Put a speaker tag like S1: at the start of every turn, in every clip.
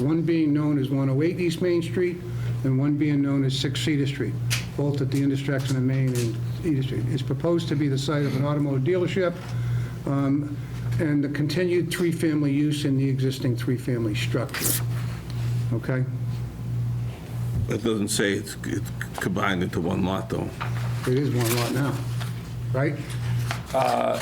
S1: one being known as 108 East Main Street and one being known as 6 Cedar Street, both at the intersection of Main and Cedar Street. It's proposed to be the site of an automotive dealership um, and the continued three-family use in the existing three-family structure. Okay?
S2: It doesn't say it's it's combined into one lot, though.
S1: It is one lot now, right? Uh,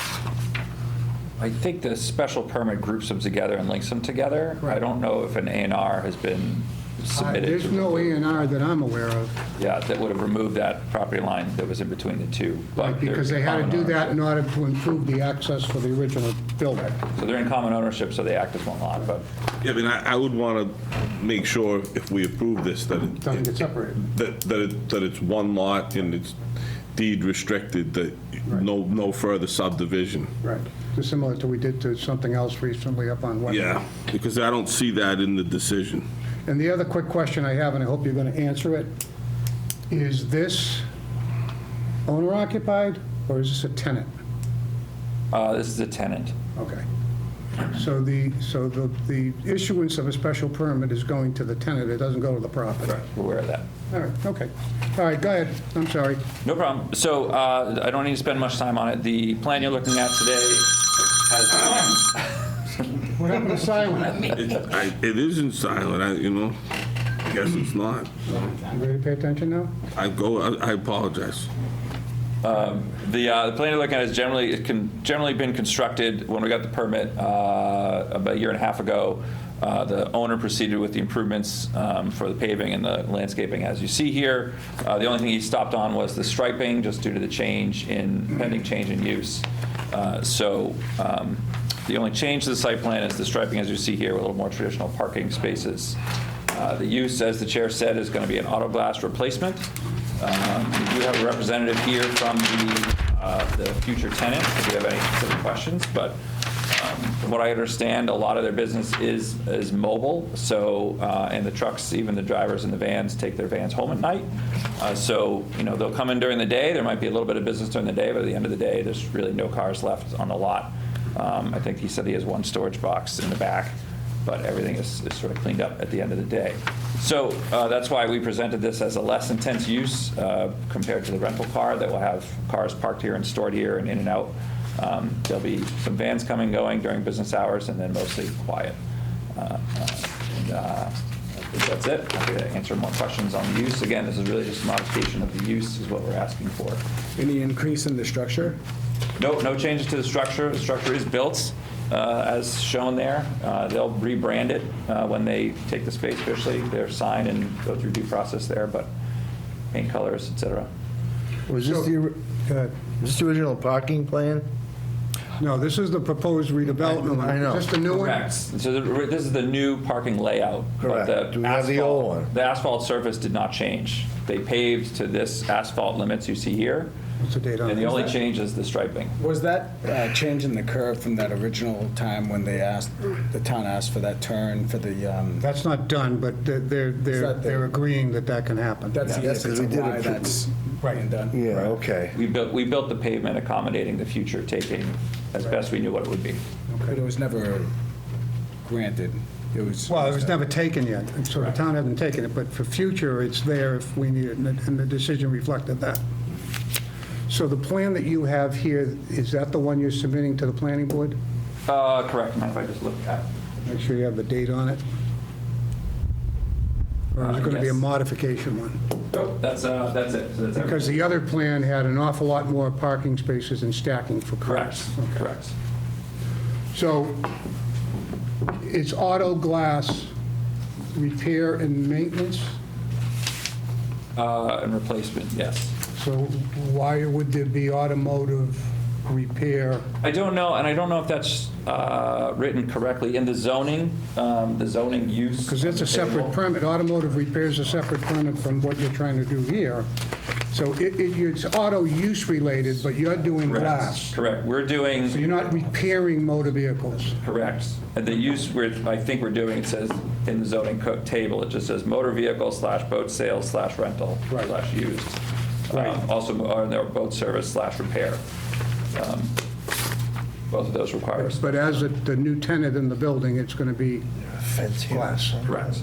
S3: I think the special permit groups them together and links them together. I don't know if an A and R has been submitted.
S1: There's
S3: to
S1: no A
S3: remove-
S1: and R that I'm aware of.
S3: Yeah, that would have removed that property line that was in between the two. but
S1: Right, because
S3: they're
S1: they
S3: in
S1: had to
S3: common
S1: do that
S3: ownership.
S1: in order to improve the access for the original building.
S3: So they're in common ownership, so they act as one lot, but
S2: Yeah, I mean, I I would want to make sure if we approve this, that it-
S1: Doesn't get separated.
S2: that, that it, that it's one lot and it's deed restricted, that no, no further subdivision.
S1: Right. Just similar to we did to something else recently up on West.
S2: Yeah, because I don't see that in the decision.
S1: And the other quick question I have, and I hope you're going to answer it, is this owner occupied or is this a tenant?
S3: uh, this is a tenant.
S1: Okay. So the, so the, the issuance of a special permit is going to the tenant, it doesn't go to the property.
S3: We're aware of that.
S1: All right, okay. All right, go ahead, I'm sorry.
S3: No problem. So uh, I don't need to spend much time on it. The plan you're looking at today has,
S1: What happened to silence?
S2: It I- it isn't silent, I, you know, I guess it's not.
S1: You ready to pay attention now?
S2: I go, I- I apologize.
S3: the uh, the plan you're looking at has generally, it can, generally been constructed when we got the permit uh, about a year and a half ago. Uh, The owner proceeded with the improvements um, for the paving and the landscaping, as you see here. Uh, The only thing he stopped on was the striping, just due to the change in, pending change in use. Uh, So um, the only change to the site plan is the striping, as you see here, with a little more traditional parking spaces. Uh, The use, as the chair said, is going to be an auto glass replacement. Um, We do have a representative here from the uh, the future tenant, if you have any specific questions, but um, from what I understand, a lot of their business is, is mobile, so, uh, and the trucks, even the drivers and the vans, take their vans home at night. Uh, So, you know, they'll come in during the day, there might be a little bit of business during the day, but at the end of the day, there's really no cars left on the lot. Um, I think he said he has one storage box in the back but everything is, is sort of cleaned up at the end of the day. So uh, that's why we presented this as a less intense use uh, compared to the rental car that will have cars parked here and stored here and in and out. Um, There'll be some vans coming, going during business hours, and then mostly quiet. Uh, uh, and, uh, I think That's it. Happy to answer more questions on the use. Again, this is really just a modification of the use is what we're asking for.
S4: Any increase in the structure?
S3: No, no changes to the structure. The structure is built uh, as shown there. Uh, They'll rebrand it uh, when they take the space officially, their sign and go through due process there, but paint colors, et cetera.
S5: Was this the, was this the original parking plan?
S1: uh, No, this is the proposed redevelopment.
S5: I know.
S1: Is this the new one?
S3: So the- this is the new parking layout. but
S5: Correct.
S3: the
S5: Do we have the
S3: asphalt-
S5: old one?
S3: The asphalt surface did not change. They paved to this asphalt limits you see here,
S1: What's the date on
S3: and the
S1: it?
S3: only change is the striping.
S4: Was that uh, change in the curve from that original time when they asked, the town asked for that turn for the, um,
S1: That's not done, but they're, they're, they're
S4: not
S1: they're
S4: there.
S1: agreeing that that can happen.
S4: that's the essence
S5: we
S4: of
S5: did
S4: why
S5: it-
S4: that's being done?
S5: Yeah, okay.
S3: We built, we built the pavement accommodating the future taking as best we knew what it would be.
S4: But it was never granted. It was.
S1: Well, it was never taken yet, and so the town hasn't taken it, but for future, it's there if we need it, and the- and the decision reflected that. So the plan that you have here, is that the one you're submitting to the planning board?
S3: Uh, Correct, mind if I just look at?
S1: Make sure you have the date on it. Or is it going to be a
S3: Uh, yes.
S1: modification one?
S3: Nope, that's, uh, that's it. So that's
S1: Because
S3: everything.
S1: the other plan had an awful lot more parking spaces and stacking for cars.
S3: Correct, correct.
S1: So it's auto glass repair and maintenance,
S3: Uh, and replacement, yes.
S1: so why would there be automotive repair?
S3: I don't know, and I don't know if that's, uh, written correctly in the zoning, um, the zoning use.
S1: Because it's a separate permit, automotive repair is a separate permit from what you're trying to do here. So it, it- it's auto use related, but you're doing
S3: Correct,
S1: glass.
S3: correct. We're
S1: So
S3: doing,
S1: you're not repairing motor vehicles.
S3: correct. And the use we're, I think we're doing, it says in the zoning code table, it just says motor vehicle slash boat sales slash rental
S1: Right.
S3: slash used.
S1: Right.
S3: Um, Also, or their boat service slash repair. Um, Both of those require.
S1: But as a- the new tenant in the building, it's going to be
S6: fence here.
S7: Glass.
S5: Correct.